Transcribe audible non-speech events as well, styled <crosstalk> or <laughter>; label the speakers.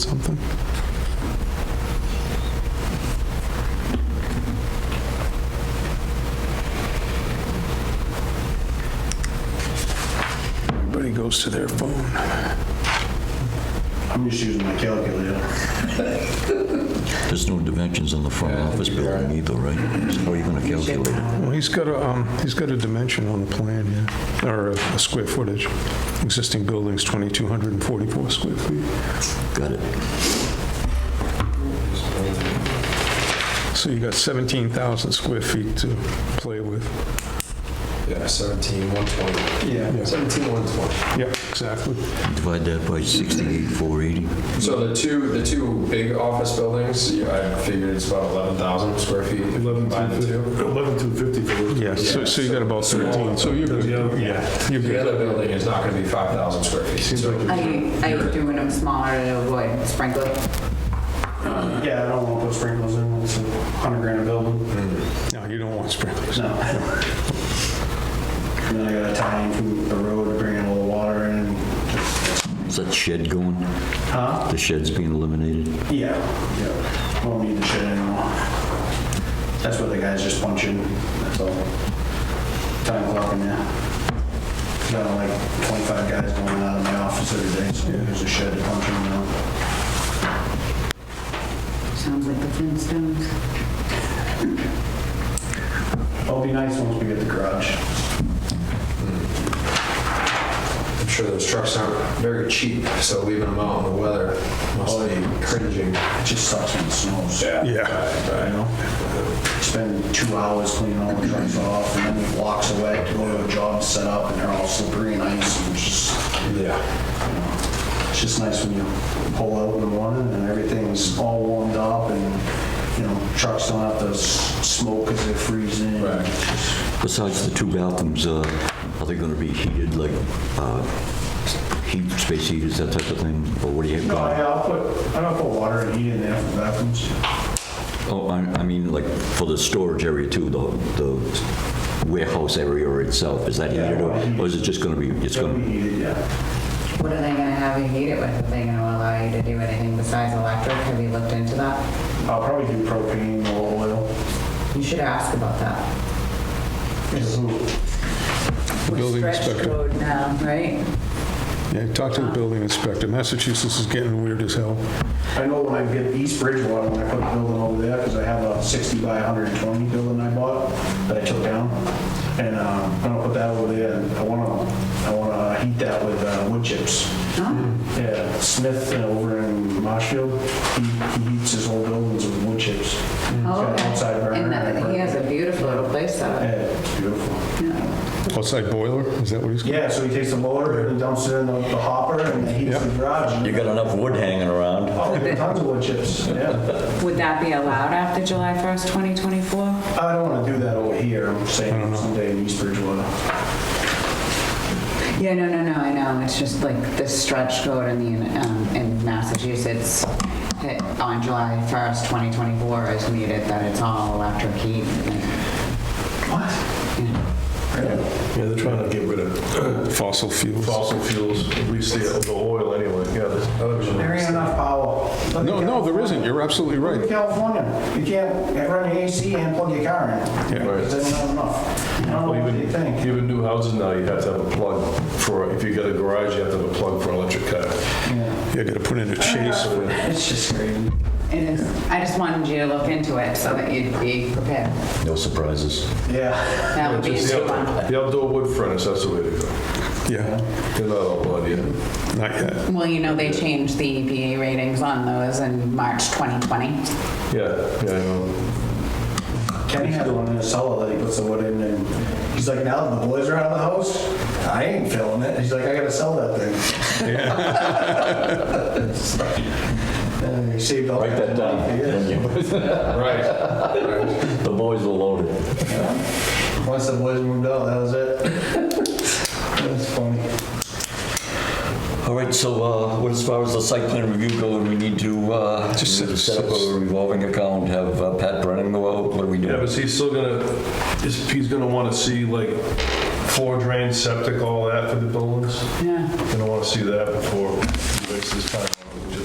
Speaker 1: something. Everybody goes to their phone.
Speaker 2: I'm just using my calculator.
Speaker 3: There's no dimensions on the front office building either, right? How are you going to calculate it?
Speaker 1: Well, he's got a, um, he's got a dimension on the plan, yeah, or a a square footage. Existing building's 2,244 square feet.
Speaker 3: Got it.
Speaker 1: So you got 17,000 square feet to play with.
Speaker 4: Yeah, 17, 120.
Speaker 1: Yeah.
Speaker 4: Yeah, 17, 120.
Speaker 1: Yeah, exactly.
Speaker 3: Divide that by 68, 480.
Speaker 4: So the two, the two big office buildings, you- I figured it's about 11,000 square feet. if you combine the two.
Speaker 5: 11 to 50 for those.
Speaker 1: Yeah, so so you got about 13, so you're good.
Speaker 5: Yeah.
Speaker 1: Yeah, you're
Speaker 4: The
Speaker 1: good.
Speaker 4: other building is not going to be 5,000 square feet. So
Speaker 6: Are you, are you doing them smaller to avoid sprinkling?
Speaker 2: Yeah, I don't want to put sprinklers in, it's a hundred grand a building.
Speaker 1: No, you don't want sprinklers.
Speaker 2: No. And then I gotta tie in from the road, bring in a little water and,
Speaker 3: Is that shed going?
Speaker 2: huh?
Speaker 3: The shed's being eliminated?
Speaker 2: Yeah, yeah, won't need the shit anymore. That's what the guys just punch in, that's all. Time clock in there. Got like twenty-five guys going out of my office every day, so there's a shed to punch in now.
Speaker 6: Sounds like the Flintstones.
Speaker 2: It'll be nice once we get the garage.
Speaker 4: I'm sure those trucks aren't very cheap, so leaving them out in the weather must be cringing.
Speaker 2: It just sucks when it snows.
Speaker 1: Yeah,
Speaker 2: You know, spend two hours cleaning all the trucks off, and then it walks away to go to a job set up, and they're all slippery and ice, and it's just,
Speaker 4: Yeah.
Speaker 2: it's just nice when you pull out in the morning and everything's all warmed up, and, you know, trucks don't have to s- smoke because they're freezing.
Speaker 4: Right.
Speaker 3: Besides the two bathrooms, uh, are they going to be heated, like uh, heat, space heaters, that type of thing? Or what do you have
Speaker 2: No, I-
Speaker 3: going?
Speaker 2: I'll put, I don't put water and heat in there for the bathrooms.
Speaker 3: Oh, I I mean, like for the storage area too, the the warehouse area itself, is that
Speaker 2: Yeah,
Speaker 3: heated? Or
Speaker 2: well,
Speaker 3: or is it just going to be, it's
Speaker 2: It'll
Speaker 3: going
Speaker 2: be
Speaker 3: to,
Speaker 2: heated, yeah.
Speaker 6: What are they gonna have you heat it with? Are they gonna allow you to do anything besides electric? Have you looked into that?
Speaker 2: I'll probably do propane or oil.
Speaker 6: You should ask about that.
Speaker 1: The building
Speaker 6: Stretch
Speaker 1: inspector.
Speaker 6: code now, right?
Speaker 1: Yeah, talk to the building inspector. Massachusetts is getting weird as hell.
Speaker 2: I know when I get East Bridgewater, when I put a building over there, because I have a 60 by 120 building I bought that I took down. And um, I'm gonna put that over there, and I wanna, I wanna heat that with uh, wood chips. Yeah, Smith uh, over in Marshfield, he he heats his whole buildings with wood chips. He's
Speaker 6: Oh,
Speaker 2: got an
Speaker 6: okay.
Speaker 2: outside burner
Speaker 6: And that- he has a beautiful little place
Speaker 2: Yeah,
Speaker 6: set up.
Speaker 2: it's beautiful.
Speaker 1: Outside boiler, is that what he's?
Speaker 2: Yeah, so he takes the motor and dumps it in the the hopper and then heats
Speaker 1: Yep.
Speaker 2: the garage.
Speaker 3: you got enough wood hanging around?
Speaker 2: Oh, tons of wood chips, yeah.
Speaker 6: Would that be allowed after July 1st, 2024?
Speaker 2: I don't want to do that over here. I'm saying someday in East Bridgewater.
Speaker 6: Yeah, no, no, no, I know. It's just like the stretch code in the, um, in Massachusetts that on July 1st, 2024 is needed, that it's all electric heat.
Speaker 2: What?
Speaker 5: Yeah, they're trying to get rid of
Speaker 1: <coughs> Fossil fuels.
Speaker 5: fossil fuels, at least the the oil anyway, yeah. there's others.
Speaker 2: There ain't enough power. Look
Speaker 1: No, no,
Speaker 2: at
Speaker 1: there
Speaker 2: California.
Speaker 1: isn't. You're absolutely
Speaker 2: Look at
Speaker 1: right.
Speaker 2: California. You can't run the AC and plug your car in.
Speaker 5: Right.
Speaker 2: Because there's not enough. I don't know
Speaker 5: Well,
Speaker 2: what they
Speaker 5: Even,
Speaker 2: think.
Speaker 5: even new houses now, you have to have a plug for, if you got a garage, you have to have a plug for electric car.
Speaker 2: Yeah.
Speaker 1: You gotta put in a chase.
Speaker 2: It's just crazy.
Speaker 6: It is, I just wanted you to look into it so that you'd be prepared.
Speaker 3: No surprises.
Speaker 2: Yeah.
Speaker 6: That would be
Speaker 5: Just the
Speaker 6: a
Speaker 5: out-
Speaker 6: one.
Speaker 5: The outdoor wood furnace, that's the way to go.
Speaker 1: Yeah,
Speaker 5: They're not all blood yet.
Speaker 1: not yet.
Speaker 6: Well, you know, they changed the EPA ratings on those in March 2020.
Speaker 5: Yeah, yeah, I know.
Speaker 2: Kenny has one in his cellar that he puts the wood in and he's like, now that the boys are out of the house, I ain't filling it. He's like, I gotta sell that thing. Uh, <laughs> he saved all.
Speaker 3: Write that down.
Speaker 2: Yeah.
Speaker 4: Right.
Speaker 3: The boys were loaded.
Speaker 2: Once the boys moved out, that was it. That's funny.
Speaker 3: All right, so uh, what as far as the site plan review goes, we need to uh,
Speaker 1: Just
Speaker 3: we need to
Speaker 1: set-
Speaker 3: set up a revolving account, have uh, Pat Brennan go out, what do we
Speaker 5: Yeah,
Speaker 3: do?
Speaker 5: but he's still gonna, is- he's gonna wanna see like floor drain, septic, all that for the buildings.
Speaker 6: Yeah.
Speaker 5: Gonna wanna see that before he wastes his time.